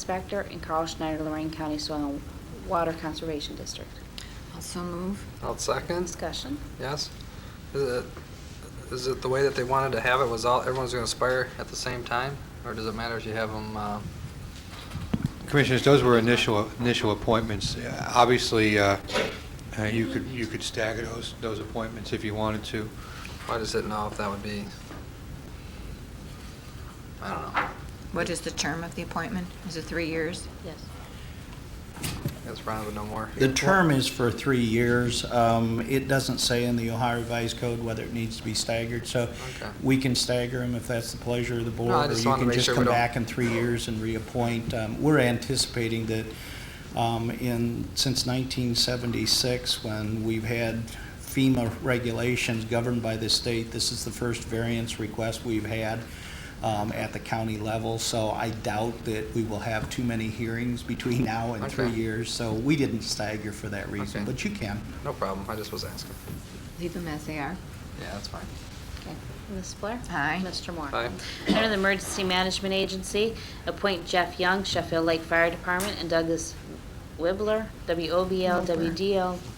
Inspector and Carl Schneider, Lorraine County Soil and Water Conservation District. Also move. I'll second, Discussion. yes. Is it- is it the way that they wanted to have it, was all, everyone's going to aspire at the same time? Or does it matter if you have uh, them, Commissioners, those were initial, initial appointments. Uh, Obviously, uh, uh, you could, you could stagger those, those appointments if you wanted to. I just didn't know if that would be, I don't know. What is the term of the appointment? Is it three years? Yes. I guess Brian would know more. The term is for three years. Um, It doesn't say in the Ohio Revised Code whether it needs to be staggered, so Okay. we can stagger them if that's the pleasure of the board. No, I just wanted to make sure we Or you can just come don't- back in three years and reappoint. Um, We're anticipating that um, in, since 1976, when we've had FEMA regulations governed by the state, this is the first variance request we've had um, at the county level, so I doubt that we will have too many hearings between now and three Okay. years, so we didn't stagger for that reason, Okay. but you can. No problem, I just was asking. Leave them as they are. Yeah, that's fine. Okay. Ms. Blair? Aye. Mr. Moore? Aye. Under the Emergency Management Agency, appoint Jeff Young, Sheffield Lake Fire Department, and Douglas Wibbler, WOBL, Wibbler.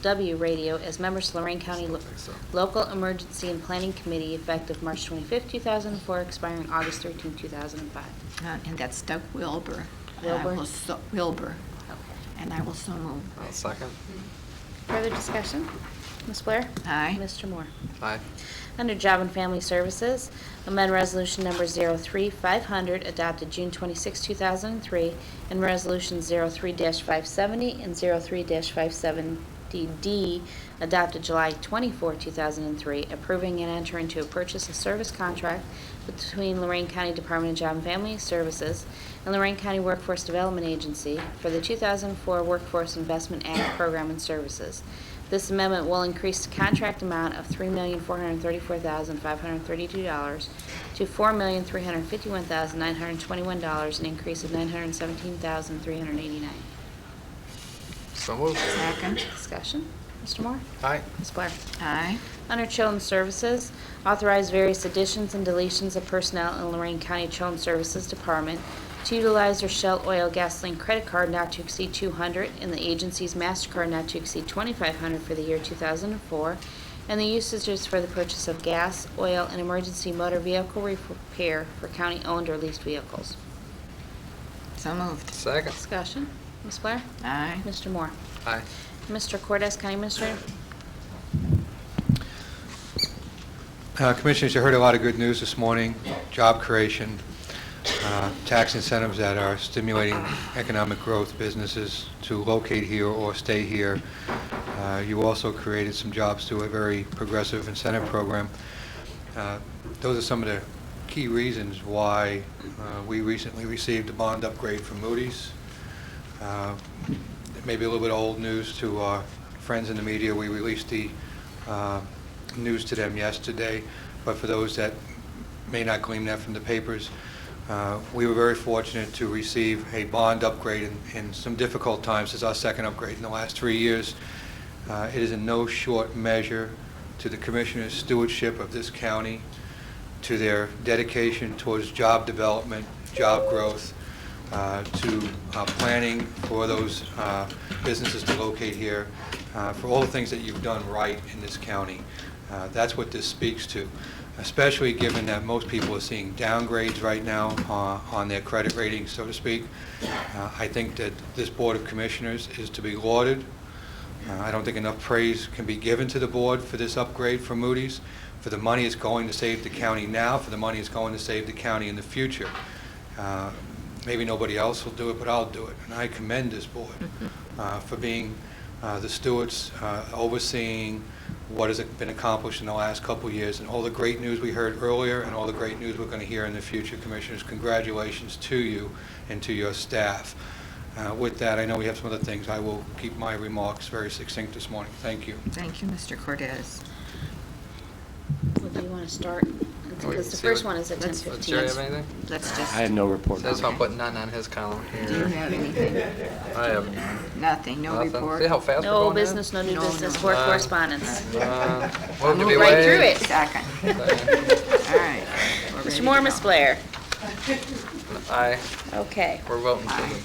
WDLW Radio, as members to Lorraine County Lo- Think so. Local Emergency and Planning Committee, effective March 25, 2004, expiring August 13, 2005. Uh, And that's Doug Wilbur. And I Wilbur? will so- Wilbur. And I will so move. I'll second, Further discussion? Ms. Blair? Aye. Mr. Moore? aye. Under Job and Family Services, amend Resolution Number 03500, adopted June 26, 2003, and Resolution 03-570 and 03-570D, adopted July 24, 2003, approving and entering into a purchase and service contract between Lorraine County Department of Job and Family Services and Lorraine County Workforce Development Agency for the 2004 Workforce Investment Act Program and Services. This amendment will increase the contract amount of $3,434,532 to $4,351,921, an increase of $917,389. So moved. Second. Discussion? Mr. Moore? Aye, Ms. Blair? Aye. Under Children's Services, authorize various additions and deletions of personnel in Lorraine County Children's Services Department to utilize their Shell Oil Gasoline Credit Card not to exceed 200 and the agency's MasterCard not to exceed 2,500 for the year 2004, and the usages for the purchase of gas, oil, and emergency motor vehicle repair for county-owned or leased vehicles. So moved. second, Discussion. Ms. Blair? Aye. Mr. Moore? aye. Mr. Cordes, County Administrator? Uh, Commissioners, you heard a lot of good news this morning, job creation, uh, tax incentives that are stimulating economic growth, businesses to locate here or stay here. Uh, You also created some jobs through a very progressive incentive program. Uh, Those are some of the key reasons why uh, we recently received a bond upgrade from Moody's. Uh, it may be a little bit old news to our friends in the media. We released the uh, news to them yesterday, but for those that may not glean that from the papers, uh, we were very fortunate to receive a bond upgrade in- in some difficult times. This is our second upgrade in the last three years. Uh, It is in no short measure to the Commissioner's stewardship of this county, to their dedication towards job development, job growth, uh, to uh, planning for those uh, businesses to locate here, uh, for all the things that you've done right in this county. Uh, That's what this speaks to, especially given that most people are seeing downgrades right now uh, on their credit ratings, so to speak. Uh, I think that this Board of Commissioners is to be lauded uh, I don't think enough praise can be given to the board for this upgrade for Moody's, for the money it's going to save the county now, for the money it's going to save the county in the future. Uh, Maybe nobody else will do it, but I'll do it. And I commend this board uh, for being uh, the stewards, uh, overseeing what has been accomplished in the last couple of years, and all the great news we heard earlier, and all the great news we're going to hear in the future. Commissioners, congratulations to you and to your staff. Uh, With that, I know we have some other things. I will keep my remarks very succinct this morning. Thank you. Thank you, Mr. Cortez. Would you want to start? Because the Oh, See first what- one is at Let's- 10:15. Does Jerry have anything? Let's just. I have no report. Says if I put none on his column Do you here. have anything? I have none. Nothing, no Nothing. report? See how fast we're going? No now? business, no new No, business, no. board Uh, correspondence. Uh, Moved to be Move right through waived. it. Second. All right. We're ready Mr. to Moore, go. Ms. Blair. Aye, Okay. we're voting for the